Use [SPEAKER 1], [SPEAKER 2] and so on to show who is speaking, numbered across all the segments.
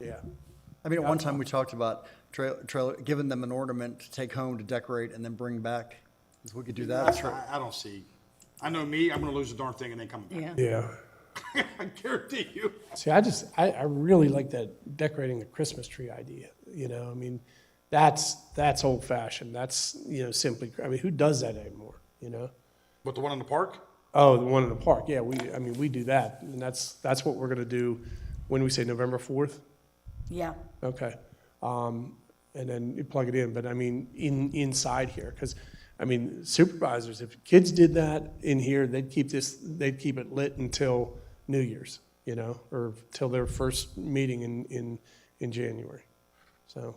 [SPEAKER 1] Yeah.
[SPEAKER 2] I mean, at one time, we talked about trail, trail, giving them an ornament to take home to decorate and then bring back. If we could do that, it's right.
[SPEAKER 3] I, I don't see. I know me, I'm gonna lose the darn thing and then come back.
[SPEAKER 4] Yeah.
[SPEAKER 1] Yeah.
[SPEAKER 3] I guarantee you.
[SPEAKER 1] See, I just, I, I really like that decorating the Christmas tree idea, you know, I mean, that's, that's old fashioned, that's, you know, simply, I mean, who does that anymore, you know?
[SPEAKER 3] But the one in the park?
[SPEAKER 1] Oh, the one in the park, yeah, we, I mean, we do that, and that's, that's what we're gonna do, when do we say, November fourth?
[SPEAKER 4] Yeah.
[SPEAKER 1] Okay. Um, and then you plug it in, but I mean, in, inside here, because, I mean, supervisors, if kids did that in here, they'd keep this, they'd keep it lit until New Year's, you know, or till their first meeting in, in, in January. So,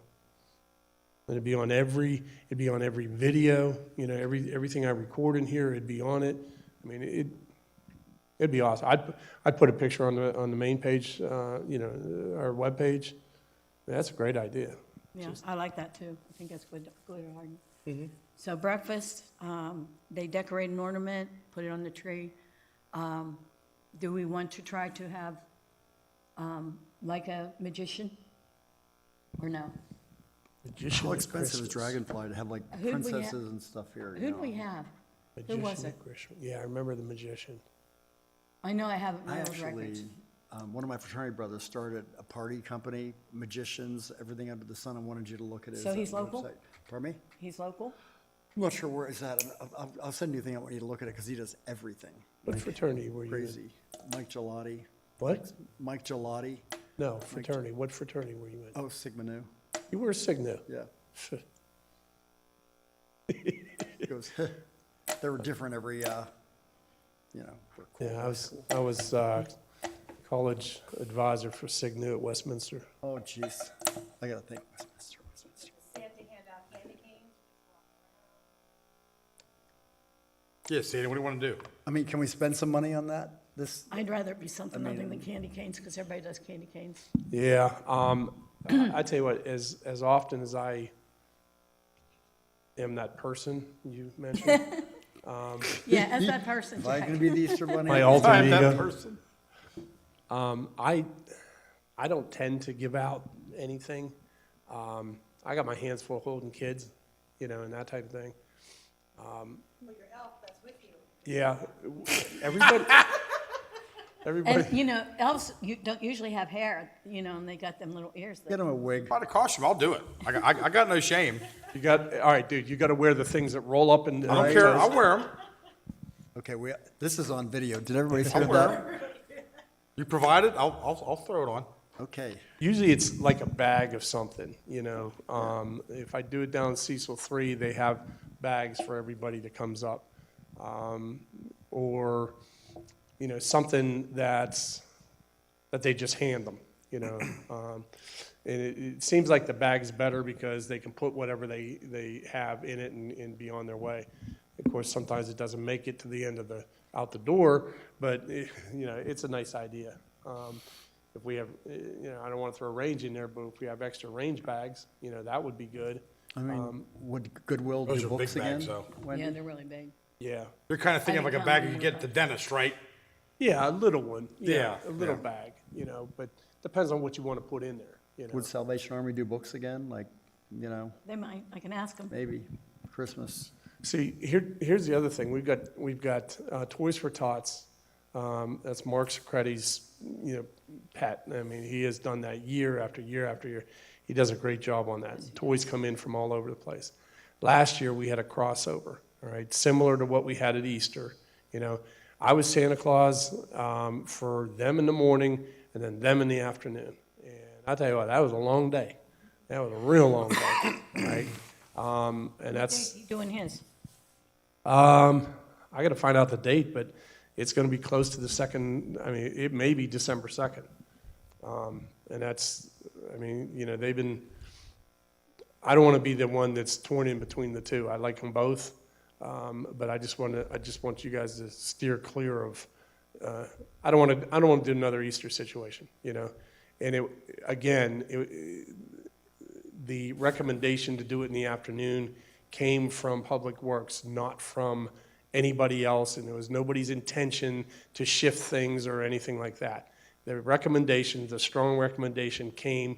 [SPEAKER 1] and it'd be on every, it'd be on every video, you know, every, everything I record in here, it'd be on it. I mean, it, it'd be awesome. I'd, I'd put a picture on the, on the main page, uh, you know, our webpage, that's a great idea.
[SPEAKER 4] Yeah, I like that too. I think that's good, good garden. So breakfast, um, they decorate an ornament, put it on the tree. Um, do we want to try to have, um, like a magician? Or no?
[SPEAKER 2] How expensive is Dragonfly to have like
[SPEAKER 4] Who'd we have-
[SPEAKER 2] princesses and stuff here? you
[SPEAKER 4] Who'd
[SPEAKER 2] know?
[SPEAKER 4] we have? Who was it?
[SPEAKER 1] Yeah, I remember the magician.
[SPEAKER 4] I know I have it in
[SPEAKER 2] I
[SPEAKER 4] my old records.
[SPEAKER 2] actually, um, one of my fraternity brothers started a party company, magicians, everything under the sun. I wanted you to look at it.
[SPEAKER 4] So
[SPEAKER 2] It's
[SPEAKER 4] he's
[SPEAKER 2] on the
[SPEAKER 4] local?
[SPEAKER 2] website. Pardon me?
[SPEAKER 4] He's local?
[SPEAKER 2] I'm not sure where it's at. I'll- I'll, I'll send you the thing. I want you to look at it because he does everything.
[SPEAKER 1] What fraternity were you in?
[SPEAKER 2] Crazy. Mike Gelati.
[SPEAKER 1] What?
[SPEAKER 2] Mike Gelati.
[SPEAKER 1] No, fraternity, what fraternity were you in?
[SPEAKER 2] Oh, Sigma Nu.
[SPEAKER 1] You were a Cigna.
[SPEAKER 2] Yeah. He goes, they were different every, uh, you know. we're cool.
[SPEAKER 1] Yeah, I was, I was, uh, college advisor for Cigna at Westminster.
[SPEAKER 2] Oh, jeez. I gotta think. Westminster, Westminster.
[SPEAKER 5] They have to hand out candy canes.
[SPEAKER 3] Yeah, Sandy, what do you wanna do?
[SPEAKER 2] I mean, can we spend some money on that? This,
[SPEAKER 4] I'd rather it be something other than candy canes, because everybody does candy canes.
[SPEAKER 1] Yeah, um, I tell you what, as, as often as I am that person you mentioned,
[SPEAKER 4] Yeah, as that person,
[SPEAKER 2] am I gonna
[SPEAKER 4] Jack.
[SPEAKER 2] be the Easter Bunny?
[SPEAKER 1] my alter
[SPEAKER 3] I'm
[SPEAKER 1] ego.
[SPEAKER 3] that person.
[SPEAKER 1] Um, I, I don't tend to give out anything. Um, I got my hands full holding kids, you know, and that type of thing.
[SPEAKER 5] Well, your elf that's with you.
[SPEAKER 1] Yeah, everybody, everybody.
[SPEAKER 4] And, you know, elves, you don't usually have hair, you know, and they got them little ears that
[SPEAKER 2] Get him a wig.
[SPEAKER 3] By the costume, I'll do it. I got, I I got no shame.
[SPEAKER 1] You got all right, dude. You got to wear the things that roll up and.
[SPEAKER 3] I don't care, I'll wear them.
[SPEAKER 2] Okay, we, this is on video. Did everybody hear
[SPEAKER 3] I'll
[SPEAKER 2] that?
[SPEAKER 3] wear them. You provide it, I'll, I'll, I'll throw it on.
[SPEAKER 2] Okay.
[SPEAKER 1] Usually it's like a bag of something, you know. Um, if I do it down Cecil three, they have bags for everybody that comes up. Um, or, you know, something that's, that they just hand them, you know. Um, and it, it seems like the bag's better because they can put whatever they, they have in it and, and be on their way. Of course, sometimes it doesn't make it to the end of the, out the door, but, it, you know, it's a nice idea. Um, if we have, eh, you know, I don't want to throw range in there, but if we have extra range bags, you know, that would be good.
[SPEAKER 2] I
[SPEAKER 1] Um,
[SPEAKER 2] mean, would Goodwill
[SPEAKER 3] Those
[SPEAKER 2] do
[SPEAKER 3] are big
[SPEAKER 2] books again?
[SPEAKER 3] bags, though.
[SPEAKER 2] Wendy?
[SPEAKER 4] Yeah, they're really big.
[SPEAKER 1] Yeah.
[SPEAKER 3] You're kinda thinking of like a bag you get at the dentist, right?
[SPEAKER 1] Yeah, a little one.
[SPEAKER 3] Yeah,
[SPEAKER 1] A little
[SPEAKER 3] yeah.
[SPEAKER 1] bag, you know, but depends on what you want to put in there, you know.
[SPEAKER 2] Would Salvation Army do books again? Like, you know,
[SPEAKER 4] They might, I can ask them.
[SPEAKER 2] maybe Christmas.
[SPEAKER 1] See, here, here's the other thing. We've got, we've got uh, Toys for Tots. Um, that's Mark Socrates, you know, pet. I mean, he has done that year after year after year. He does a great job on that. Toys come in from all over the place. Last year we had a crossover, all right, similar to what we had at Easter. You know, I was Santa Claus um, for them in the morning and then them in the afternoon. And I tell you what, that was a long day. That was a real long day, right? Um, and that's
[SPEAKER 4] He's doing his.
[SPEAKER 1] um, I got to find out the date, but it's going to be close to the second. I mean, it may be December second, um, and that's. I mean, you know, they've been. I don't want to be the one that's torn in between the two. I like them both, um, but I just want to. I just want you guys to steer clear of. Uh, I don't want to. I don't want to do another Easter situation. You know, and it again. It, the recommendation to do it in the afternoon came from Public Works, not from anybody else, and there was nobody's intention to shift things or anything like that. The recommendation, the strong recommendation came